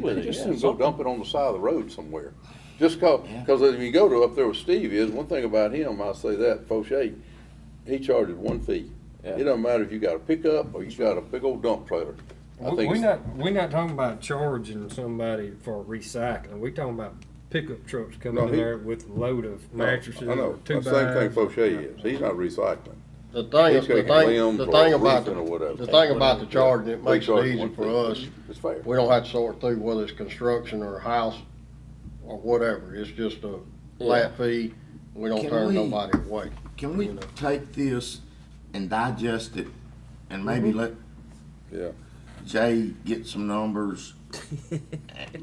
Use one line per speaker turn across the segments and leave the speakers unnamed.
with it,
Just
yeah.
do
Go
something.
dump it on the side of the road somewhere. Just cause, cause if you go to up there with Steve is, one thing about him, I'll say that, Foshay, he charges one fee.
Yeah.
It don't matter if you got a pickup or you got a big old dump trailer. I
We-
think
We
it's-
not, we not talking about charging somebody for recycling, we talking about pickup trucks
No,
coming in
he-
there with a load of mattresses
I know,
or two
the same thing
bags.
Foshay is, he's not recycling.
The thing,
He's
is- the
taking
thing,
limbs
the
or
thing about,
roofing or
the
whatever.
the thing about the charging, it
They
makes it
charge
easy
one
for
fee.
us.
It's fair.
We don't have to sort through whether it's construction or house or whatever. It's just a flat fee. We don't
Can
turn
we-
nobody away.
Can we
You know.
take this and digest it and maybe let
Yeah.
Jay get some numbers?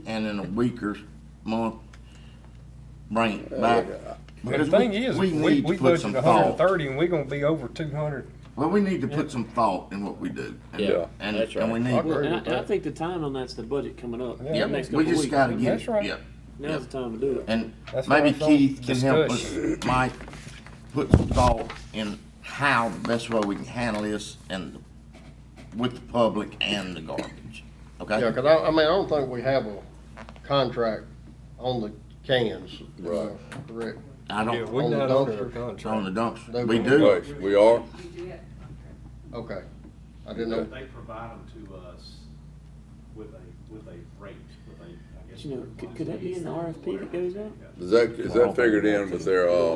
And in a week or month, bring it back.
The
Because
thing is, we,
need to
we
put some
budgeted hundred and
thought.
thirty and we gonna be over two hundred.
Well, we need to put some thought in what we do. And-
Yeah,
and-
that's
And we
right.
And
need,
I,
with
and I
that.
think the time on that's the budget coming up.
Yeah.
yeah,
the next
we
couple
just
weeks.
gotta get,
That's right.
it. yeah.
Now's the time to do it.
And
That's what
maybe
I thought.
Keith can help us,
Discussion.
Mike, put some thought in how the best way we can handle this and with the public and the garbage, okay?
Yeah, cause I, I mean, I don't think we have a contract on the cans.
Right.
uh, Correct.
I
Yeah,
don't,
we
on the
not under
dumpster.
on the
contract.
dumpster,
They
we
will.
do,
Right, we are,
We do have a contract.
Okay. I didn't know.
They provide them to us with a, with a rate, with a, I guess.
You know, could- could that be in the RFP that goes out?
is that, is that figured in with their, uh,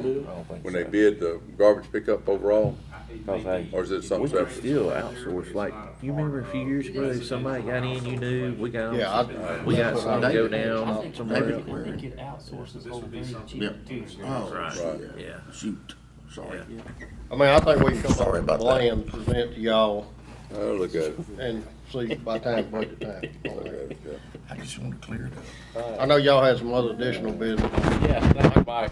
when they bid the garbage pickup overall?
Cause hey,
Or is it
we
something
could
separate?
still outsource, like, you remember a few years ago, somebody got in, you knew, we got,
Yeah,
on-
I.
we got
that's
some
what
to
I
go
think-
I
down
think-
somewhere
I
else.
think- I think it outsources whole thing cheaper
Yep.
too.
oh,
Right.
shit.
Yeah.
shoot, sorry.
I mean, I think we can come up
Sorry
with a
about that.
plan, to present to y'all
I'll Oh, look at it.
and see by time budget time.
Look at it, yeah.
I just wanna clear it up.
I know y'all had some other additional business.
Yeah, thank you, Mike.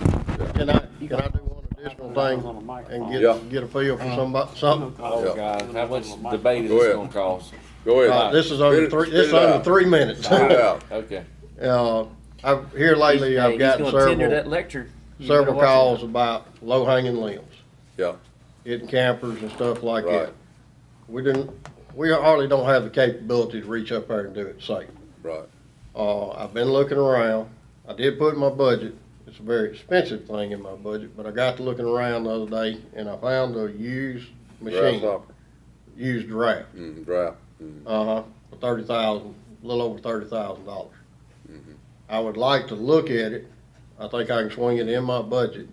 Can I, can I do one additional thing and
Yeah.
get, get a feel for somebody, something?
Oh,
God, how much
debate
debate is
Go
this
ahead.
gonna cost?
Go
Uh,
ahead.
This is under
Spit it-
three,
spit
this is
it
under
out.
three minutes.
Spit it out.
Okay.
Uh, I've, here lately, I've gotten several,
lecture. You better
several
watch
calls about low hanging limbs,
Yeah,
hitting campers and stuff like
Right.
that. We didn't, we hardly don't have the capability to reach up there and do it safe.
right.
Uh, I've been looking around. I did put in my budget. It's a very expensive thing in my budget, but I got to looking around the other day and I found a used machine,
Grasshopper.
used draft.
Mm, drought.
Uh-huh, for thirty thousand, a little over thirty thousand dollars.
Mm-hmm.
I would like to look at it, I think I can swing it in my budget.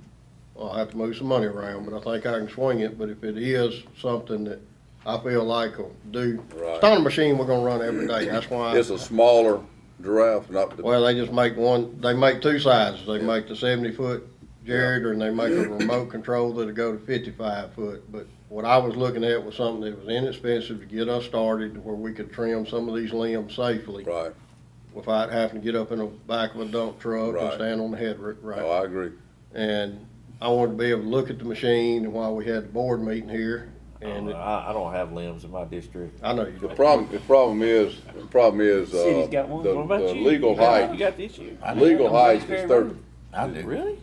I'll have to move some money around, but I think I can swing it, but if it is something that I feel like will do,
Right.
it's not a machine we're gonna run every day, that's why.
It's a smaller giraffe, not the,
Well, they just make one, they make two sizes, they make the seventy foot Jared, and they make a remote control that'll go to fifty-five foot. But what I was looking at was something that was inexpensive to get us started, to where we could trim some of these limbs safely
right.
without having to get up in the back of a dump truck
Right.
and stand on the head ri-
Oh,
right.
I agree.
And I wanted to be able to look at the machine, and while we had the board meeting here,
Oh,
and it-
I, I don't have limbs in my district.
I know you
The
don't.
problem, the problem is, the problem is, uh,
City's got one.
the-
What about
the
you?
legal
You got-
height.
You got the issue.
Legal height
Very
is thirty,
rude.
I do.
Really?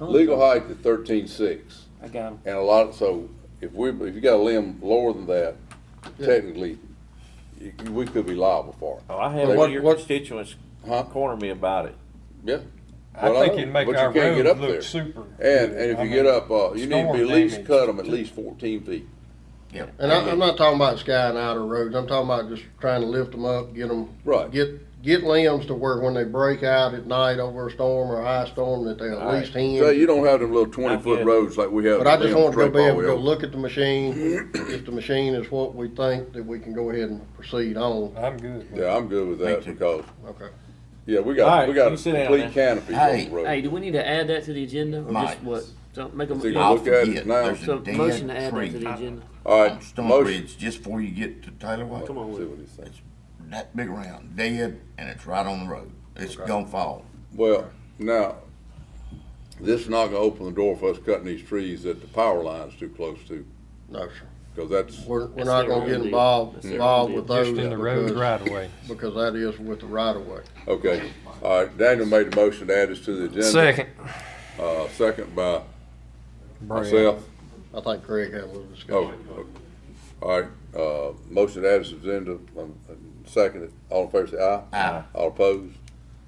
legal height is thirteen-six.
I got him.
And a lot, so if we, if you got a limb lower than that, technically, you- you- we could be liable for it.
Oh, I had
What-
one of your
what-
constituents
Huh?
corner me about it.
Yeah.
I
Well,
think
know,
it'd make
but you
our
can't get up
road
there.
look super.
And, and if you get up, uh, you need to be at
storm
least
damage.
cut them at least fourteen feet.
And I, I'm not talking about skying outer roads, I'm talking about just trying to lift them up, get them.
Right.
Get, get limbs to where when they break out at night over a storm or a high storm, that they at
Right.
least
So
hinge.
you don't have them little twenty-foot
good.
roads like we have.
But I just
down
want to go be
Trapal
able to go
Hill.
look at the machine, if the machine is what we think, that we can go ahead and proceed on,
I'm good. with it.
Yeah, I'm good with that
too.
because,
okay?
yeah, we
All
got,
right,
we got
you
a
sit down
complete canopy on
Hey,
the road.
Hey, do we need to add that to the agenda or just
Mike.
what? So make a,
Is it
yeah,
gonna
I'll
look at it
forget,
now.
there's
so
a
motion to
dead
add that to
tree
the agenda.
All
on
right,
Stone
motion.
Ridge, just before you get to Taylor Way.
Come on,
See
Will.
what he's saying.
It's that big round, dead, and it's right on the road, it's gonna fall.
Well, now, this is not gonna open the door for us cutting these trees that the power line's too close to,
No, sir,
because that's,
we're, we're
That's
not
their own
gonna get
deal. That's
involved,
their own
involved
deal.
with those.
Just in the road
because-
right away.
Because that is with the right of way.
okay. All right, Daniel made a motion to add this to the agenda.
Second,
Uh, second by
Brad.
myself.
I think Craig had a little discussion.
Oh, okay. all right, uh, motion to add this to the agenda, um, Seconded. All in favor say aye.
Aye.
All opposed?